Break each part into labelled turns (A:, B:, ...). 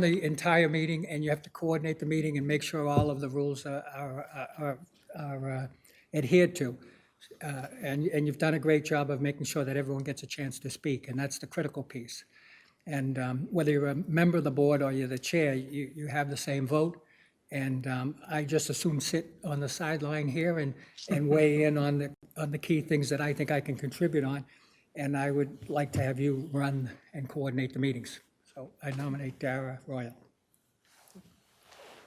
A: the entire meeting and you have to coordinate the meeting and make sure all of the rules are- are, are, are uh, adhered to. Uh, And, and you've done a great job of making sure that everyone gets a chance to speak, and that's the critical piece. And um, whether you're a member of the board or you're the chair, you, you have the same vote. And um, I just assume sit on the sideline here and, and weigh in on the, on the key things that I think I can contribute on. And I would like to have you run and coordinate the meetings. So I nominate Dara Royal.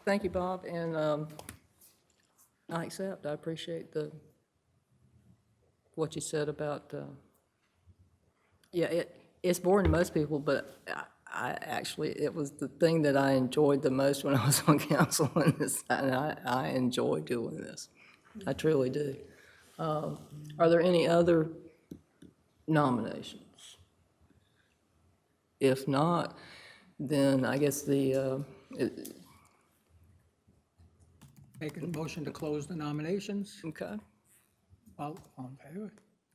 B: Thank you, Bob, and um, I accept, I appreciate the, what you said about, uh, yeah, it, it's boring to most people, but I- I actually, it was the thing that I enjoyed the most when I was on council, and it's- and I, I enjoy doing this. I truly do. Um, Are there any other nominations? If not, then I guess the, uh, it-
A: Make a motion to close the nominations.
B: Okay,
A: All all in favor?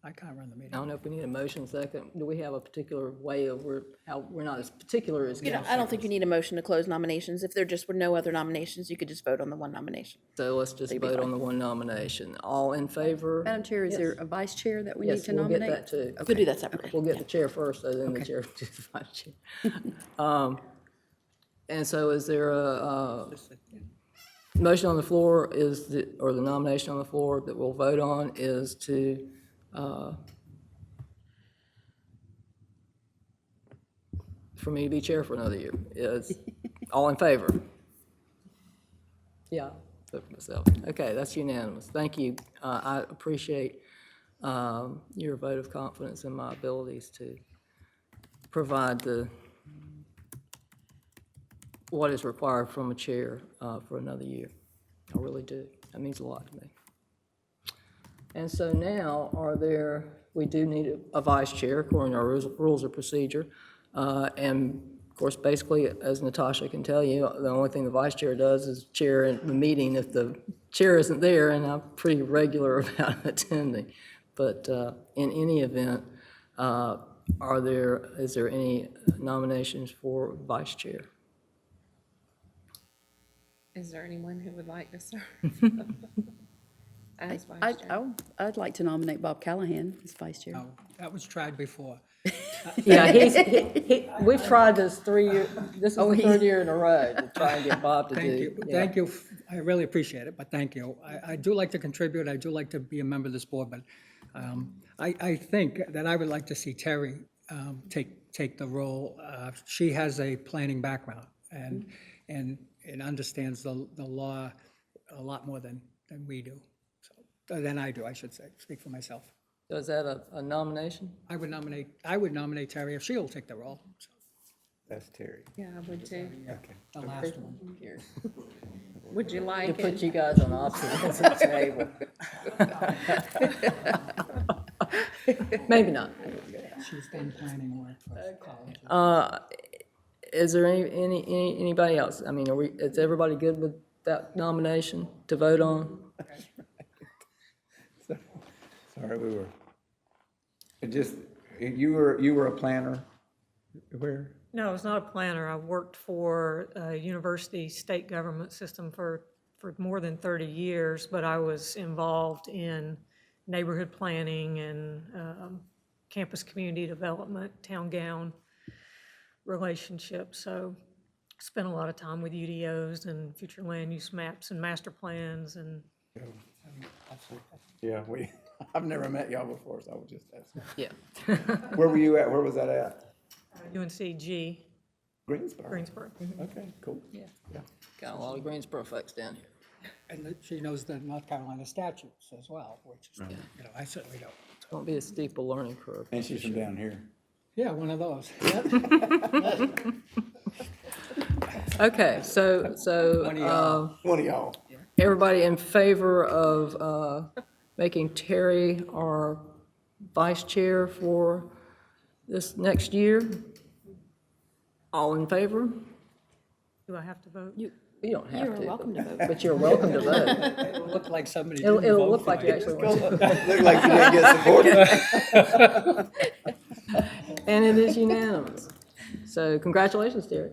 A: I can't run the meeting.
B: I don't know if we need a motion second. Do we have a particular way of, we're, how, we're not as particular as
C: You know,
B: council.
C: I don't think you need a motion to close nominations. If there just were no other nominations, you could just vote on the one nomination.
B: So let's just vote on the one nomination. All in favor?
D: Madam Chair, is there a vice chair that we need
B: Yes,
D: to
B: we'll get that
D: nominate?
B: too.
C: We'll do that separately.
B: We'll get the chair first, so then the chair, to the vice chair. Um, And so is there a, uh, motion on the floor is, the- or the nomination on the floor that we'll vote on is to, uh, for me to be chair for another year. Is, all in favor? Yeah, vote for myself. Okay, that's unanimous. Thank you. Uh, I appreciate um, your vote of confidence in my abilities to provide the, what is required from a chair uh, for another year. I really do. That means a lot to me. And so now, are there, we do need a- a vice chair according to our rules- rules of procedure. Uh, And of course, basically, as Natasha can tell you, the only thing the vice chair does is chair in the meeting if the chair isn't there, and I'm pretty regular about attending. But uh, in any event, uh, are there, is there any nominations for vice chair?
E: Is there anyone who would like to serve? As vice
D: I,
E: chair?
D: I, would- I'd like to nominate Bob Callahan as vice chair.
A: No, That was tried before.
B: Yeah, he's, he- he, we've tried this three year, this is the third year in a row to try and get Bob to do.
A: Oh, Thank you,
B: yeah.
A: thank you, I really appreciate it, but thank you. I, I do like to contribute, I do like to be a member of this board, but um, I, I think that I would like to see Terry um, take, take the role. Uh, She has a planning background and, and, and understands the, the law a lot more than, than we do, So uh, than I do, I should say, speak for myself.
B: So is that a, a nomination?
A: I would nominate, I would nominate Terry if she'll take the role, so,
F: That's Terry.
E: Yeah, I would too.
A: the last one.
E: Would you like
B: Put
E: it?
B: you guys on opposite table. Maybe not.
A: She's done planning work for college.
B: Is there any, any, any anybody else? I mean, are we, is everybody good with that nomination to vote on?
F: Sorry, we were, it just, you were, you were a planner? Where?
G: No, I was not a planner. I worked for a university state government system for, for more than 30 years, but I was involved in neighborhood planning and um, campus community development, town gown relationships. So spent a lot of time with UDOs and future land use maps and master plans and
F: Yeah, we, I've never met y'all before, so I was just asking.
B: Yeah.
F: Where were you at? Where was that at?
G: UNCG,
F: Greensboro?
G: Greensboro.
F: Okay, cool.
B: Yeah. Got a lot of Greensboro folks down here.
A: And that she knows the North Carolina statutes as well, which is, you know, I certainly don't.
B: Won't be a steep a learning curve.
F: And she's from down here.
A: Yeah, one of those.
B: Okay, so, so,
A: One of
B: uh,
A: y'all.
F: One of y'all.
B: Everybody in favor of uh, making Terry our vice chair for this next year? All in favor?
G: Do I have to vote?
B: You you don't have to.
C: You're welcome to vote.
B: But you're welcome to vote.
A: It'll look like somebody
B: It'll,
A: didn't
B: it'll
A: vote
B: look
A: for
B: like
A: it.
B: you actually want to.
F: Looked like you didn't get supported.
B: And it is unanimous. So congratulations, Terry.